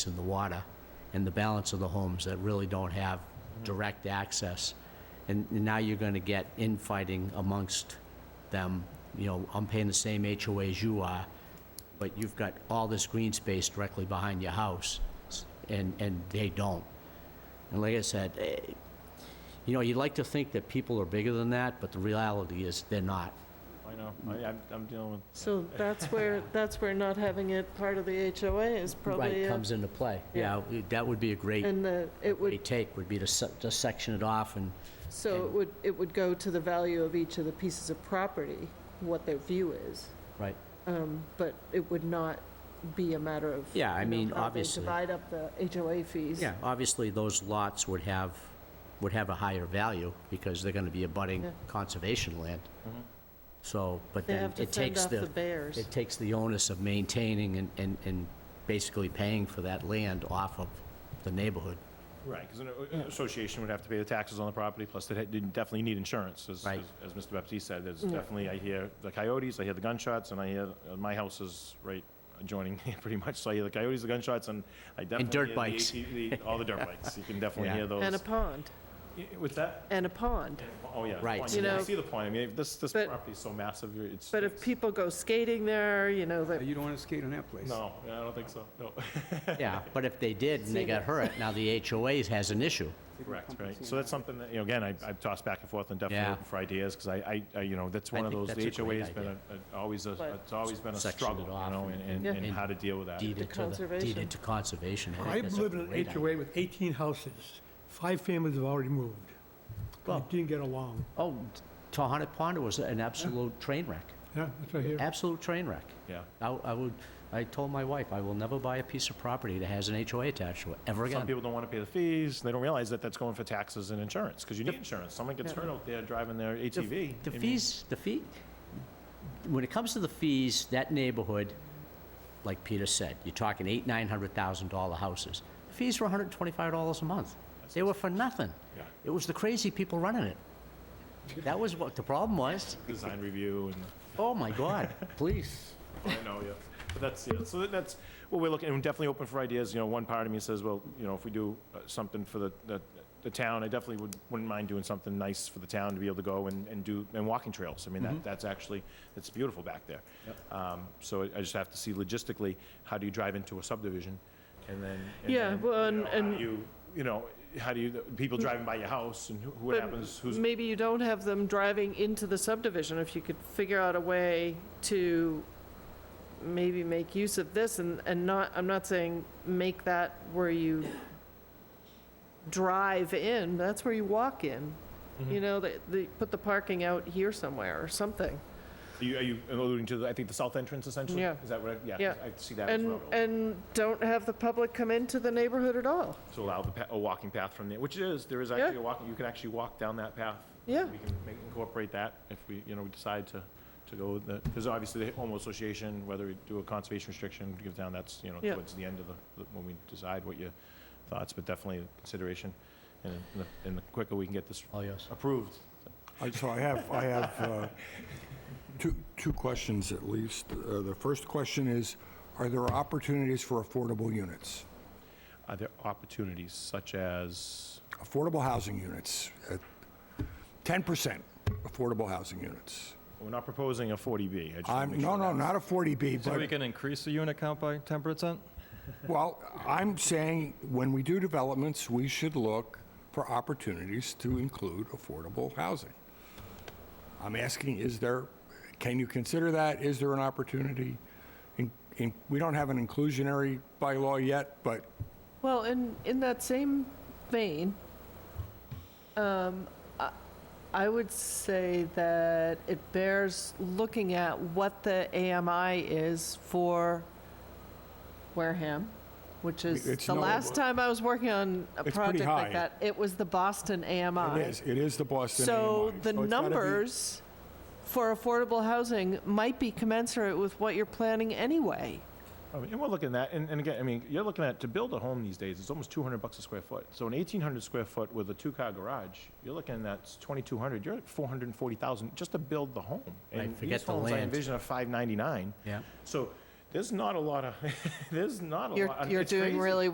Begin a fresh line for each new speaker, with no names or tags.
in the water, and the balance of the homes that really don't have direct access. And now you're gonna get infighting amongst them, you know, I'm paying the same HOA as you are, but you've got all this green space directly behind your house, and, and they don't. And like I said, eh, you know, you'd like to think that people are bigger than that, but the reality is they're not.
I know, I, I'm- I'm dealing with,
So that's where, that's where not having it part of the HOA is probably,
Right,
it.
comes into play. Yeah, that would be a great,
and the, it would,
great take, would be to se- to section it off and
so it would, it would go to the value of each of the pieces of property, what their view is,
Right.
Um, but it would not be a matter of.
Yeah, I
you know,
mean,
how they
obviously.
Divide up the HOA fees.
Yeah, obviously, those lots would have, would have a higher value because they're gonna be abutting
Yeah. Mm-hmm.
conservation land.
Mhm.
So, but
They
then
have to
it
fend
takes
off the
the,
bears.
it takes the onus of maintaining and, and, and basically paying for that land off of the neighborhood.
right, because an a- association would have to pay the taxes on the property, plus they definitely need insurance, as,
Right.
as- as Mr. Baptiste said, there's definitely, I hear the coyotes, I hear the gunshots, and I hear, uh, my house is right adjoining, pretty much, so I hear the coyotes, the gunshots, and I definitely.
dirt
hear the
bikes.
AT the- All the dirt bikes, you can definitely
Yeah.
hear those.
And a pond,
Y- With that,
and a pond.
oh, yeah. the
Right.
point.
You
I
know,
see the point, I mean, this, this
but-
property's so massive, you're- it's.
But if
it's-
people go skating there, you know,
Uh,
that,
You don't want to skate on that place.
No, I don't think so, no,
Yeah, but if they did and they
See,
got
but-
hurt, now the HOA has an issue.
correct, right? So that's something that, you know, again, I- I've tossed back and forth and definitely
Yeah.
looking for ideas, because I, I, I- you know, that's
I
one of
think
those, the
that's a great
HOA's been a- a- always, a
But-
it's always been a
Section it
struggle, you
off
know,
and-
and,
Yeah.
and and how to deal with that.
Deeded to, the-
conservation.
deeded to conservation. I think
I
that's a
live in an
great idea.
HOA with 18 houses. Five families have already moved. They
Well-
didn't get along.
Oh, Tohonet Pond was an absolute train wreck,
Yeah, that's right here.
absolute train wreck.
Yeah.
I, I would, I told my wife, I will never buy a piece of property that has an HOA attached to it, ever
Some
again.
people don't want to pay the fees, they don't realize that that's going for taxes and insurance, because you need insurance. Someone gets
Yeah.
hurt out there driving their
The-
ATV.
The
I mean,
fees, the fee, when it comes to the fees, that neighborhood, like Peter said, you're talking eight, nine hundred thousand dollar houses. The Fees were hundred and twenty-five dollars a month. They were for nothing.
Yeah.
It was the crazy people running it. That was what the problem was.
Design review and.
Oh, my God, please.
I know, yeah. But that's, yeah, so that- that's what we're looking, and we're definitely open for ideas. You know, one part of me says, well, you know, if we do uh, something for the, the, the town, I definitely would, wouldn't mind doing something nice for the town to be able to go and, and do, and walking trails. I mean, that, that's actually, it's beautiful back there. Um, so I- I just have to see logistically, how do you drive into a subdivision? And then, and
Yeah,
then,
well,
you know,
and-
how
and- Mm.
do you, you know, how do you, people driving by your house and who, what
But
happens, who's
maybe you don't have them driving into the subdivision, if you could figure out a way to maybe make use of this and, and not, I'm not saying make that where you drive in, that's where you walk in.
Mm-hmm.
You know, they, they put the parking out here somewhere or something.
Are you, are you alluding to, the- I think, the south entrance essentially?
Yeah.
Is that what, I- yeah,
Yeah.
I see that as
And,
well.
and don't have the public come into the neighborhood at all.
to allow the, pa- a walking path from there, which is, there is
Yeah.
actually a walking, you can actually walk down that path.
Yeah.
We can make- incorporate that if we, you know, we decide to, to go with that, because obviously the homeowners association, whether we do a conservation restriction, give down, that's, you know,
Yeah.
towards the end of the, the- when we decide what your thoughts, but definitely a consideration. And the, and the quicker we can get this
All yours.
approved,
I- So I have, I have uh, two, two questions at least. Uh, The first question is, are there opportunities for affordable units?
are there opportunities such as,
Affordable housing units, at 10% affordable housing units.
we're not proposing a 40B. I just wanna
I'm,
make
no,
sure
no,
that's-
not a 40B,
So we
but,
can increase the unit count by 10%?
well, I'm saying when we do developments, we should look for opportunities to include affordable housing. I'm asking, is there, can you consider that? Is there an opportunity? In- in- We don't have an inclusionary bylaw yet, but
Well, in, in that same vein, um, I, I would say that it bears looking at what the AMI is for Wareham, which is,
It's
the
no-
last time I was working on a
It's pretty
project like
high.
that, it was the Boston AMI.
it is, it is the Boston
So
AMI,
the
it's gotta be-
numbers for affordable housing might be commensurate with what you're planning anyway.
I mean, and we're looking at, and, and again, I mean, you're looking at, to build a home these days, it's almost two hundred bucks a square foot. So an eighteen hundred square foot with a two-car garage, you're looking at twenty-two hundred, you're at four hundred and forty thousand just to build the home.
Right,
And
forget
these
the
homes I
land.
envision are five ninety-nine.
Yeah.
So there's not a lot of, there's not a
You're,
lot. and
you're
Oh, it's
doing
crazy.
really